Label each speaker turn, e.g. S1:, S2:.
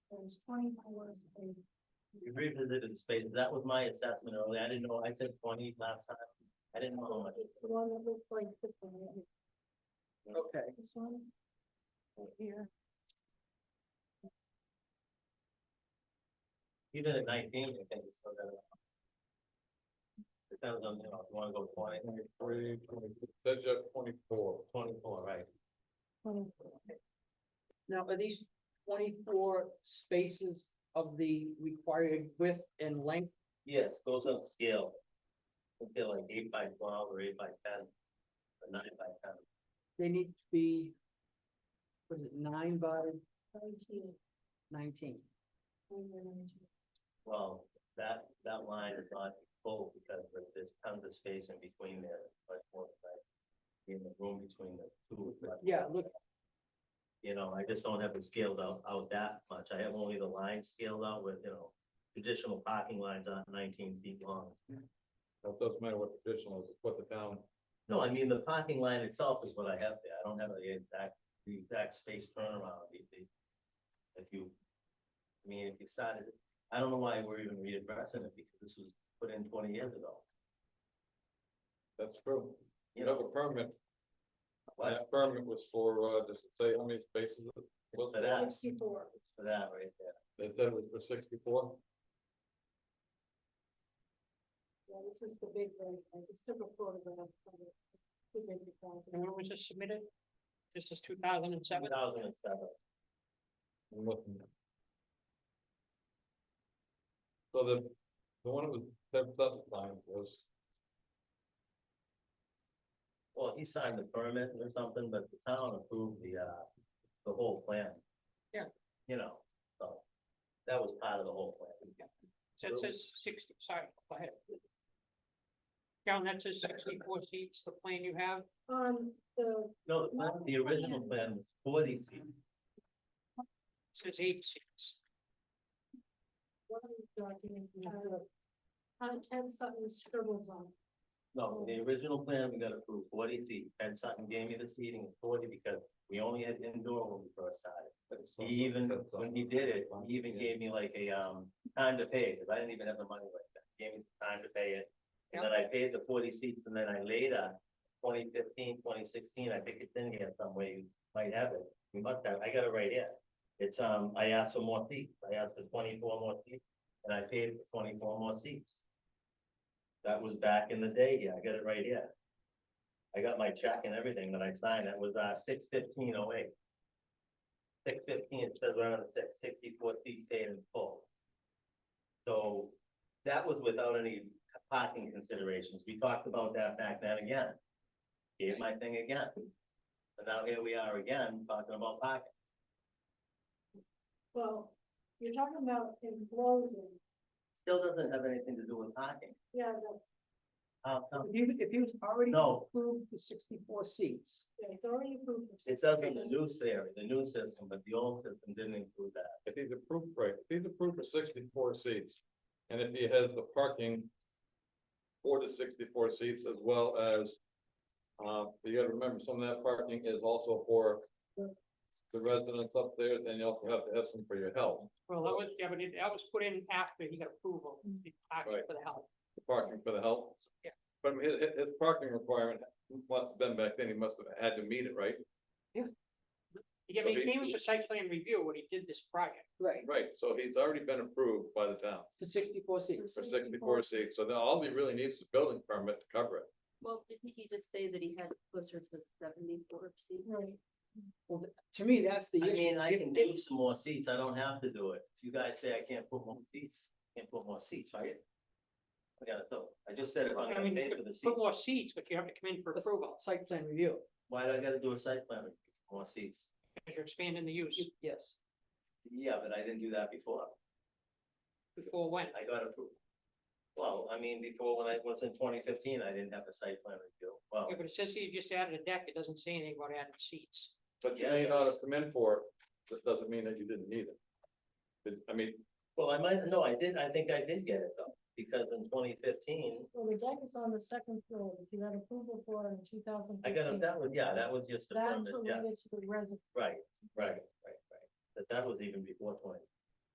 S1: is twenty-four space.
S2: You revisited space, that was my assessment earlier, I didn't know, I said twenty last time, I didn't know how much.
S1: It's The one that looks like this one. right here.
S2: Okay.
S1: This one. Right here.
S2: Even at nineteen, I think it's still better. Depends on, you know, if you wanna go twenty,
S3: Twenty-three, twenty-four, that's at twenty-four.
S2: twenty-four, right?
S1: Twenty-four.
S4: Now, are these twenty-four spaces of the required width and length?
S2: Yes, goes on scale. Okay, like eight by twelve or eight by ten, or nine by ten.
S4: They need to be, was it nine by
S1: Nineteen.
S4: nineteen?
S1: twenty-one, nineteen.
S2: Well, that, that line is not full because there- there's tons of space in between there, much more like. In the room between the two. but,
S4: Yeah, look,
S2: You know, I just don't have it scaled out, out that much. I have only the line scaled out with, you know, traditional parking lines on nineteen feet long.
S3: Now, It doesn't matter what traditional is, it's what the town,
S2: No, I mean, the parking line itself is what I have there. I don't have the exact, the exact space turnaround. the- the- If you, I mean, if you started, I don't know why we're even readdressing it because this was put in twenty years ago.
S3: that's true.
S2: You
S3: You have
S2: know,
S3: a permit,
S2: What?
S3: that permit was for, uh, does it say how many spaces? it was?
S2: For that,
S1: Sixty-four.
S2: for that right there.
S3: They said it was for sixty-four,
S1: Yeah, this is the big one. I just took a photograph of it. The big one.
S5: And when was this submitted? This is two thousand and seven?
S2: Two thousand and seven.
S3: I'm looking. So the, the one that was, that, that line was,
S2: Well, he signed the permit or something, but the town approved the, uh, the whole plan.
S5: Yeah.
S2: You know, so that was part of the whole plan.
S5: So it says sixty, sorry, go ahead. John, that says sixty-four seats, the plan you have,
S1: On the,
S2: No, the plan- the original plan was forty feet.
S5: says eight seats.
S1: one of these documents, uh, content something scribbles on. it.
S2: No, the original plan, we got approved forty feet. Ed Sutton gave me the seating of forty because we only had indoor when we first started.
S3: that's.
S2: He even,
S3: that's
S2: when he did it, he even
S3: Yeah.
S2: gave me like a, um, time to pay, cause I didn't even have the money like that. He Gave me some time to pay it. And then I paid the forty seats and then I later, 2015, 2016, I think it's in here somewhere, you might have it. You must have, I got it right here. It's, um, I asked for more seats, I asked for twenty-four more seats, and I paid for twenty-four more seats. That was back in the day, yeah, I got it right here. I got my check and everything that I signed, that was, uh, six fifteen oh eight. Six fifteen, it says right on the six, sixty-four seats paid in full. So, that was without any parking considerations. We talked about that back then again. Gave my thing again. And now here we are again, talking about parking.
S1: Well, you're talking about enclosing.
S2: Still doesn't have anything to do with parking.
S1: Yeah, that's,
S2: How come?
S4: if you, if you already
S2: No.
S4: approved the sixty-four seats,
S1: yeah, it's already approved. for
S2: It does in the new theory, the new system, but the old system didn't include that.
S3: If he's approved, right, if he's approved for sixty-four seats, and if he has the parking. For the sixty-four seats as well as, uh, you gotta remember, some of that parking is also for. The residents up there, and you also have to have some for your health,
S5: Well, that was, yeah, but it- that was put in after he got approval, the parking
S3: Right.
S5: for the health.
S3: the parking for the health.
S5: Yeah.
S3: But his, his, his parking requirement must have been back then, he must have had to meet it, right?
S5: Yeah, but
S3: Okay.
S5: he came in for site plan review when he did this project.
S4: right,
S3: Right, so he's already been approved by the town
S4: for sixty-four seats.
S3: for sixty-four seats, so then all he really needs is a building permit to cover it.
S6: Well, didn't he just say that he had closer to seventy-four seats?
S1: Right,
S4: To me, that's the
S2: I
S4: issue.
S2: mean, I
S4: If-
S2: can
S4: if-
S2: do some more seats. I don't have to do it. If you guys say I can't put more seats, can't put more seats, right? I gotta do. I just said if I'm
S5: I
S2: gonna
S5: mean,
S2: pay
S5: you
S2: for the
S5: could put more
S2: seats,
S5: seats, but you have to come in for
S4: for
S5: approval,
S4: Site plan review,
S2: why do I gotta do a site plan review for more seats?
S5: because you're expanding the use
S4: yes.
S2: Yeah, but I didn't do that before.
S5: before when.
S2: I got approved. Well, I mean, before when I was in twenty fifteen, I didn't have a site plan review. Well,
S5: Yeah, but it says he just added a deck, it doesn't say anything about adding seats.
S3: But you
S2: Yeah,
S3: may not
S2: that's-
S3: have come in for it, that doesn't mean that you didn't need it. But, I mean,
S2: well, I might, no, I did, I think I did get it though, because in twenty fifteen,
S1: well, the deck is on the second floor, if you had approval for it in two thousand.
S2: I got, a- that was, yeah, that was just a
S1: That's
S2: permit, yeah,
S1: related to the resident.
S2: right, right, right, right. But that was even before twenty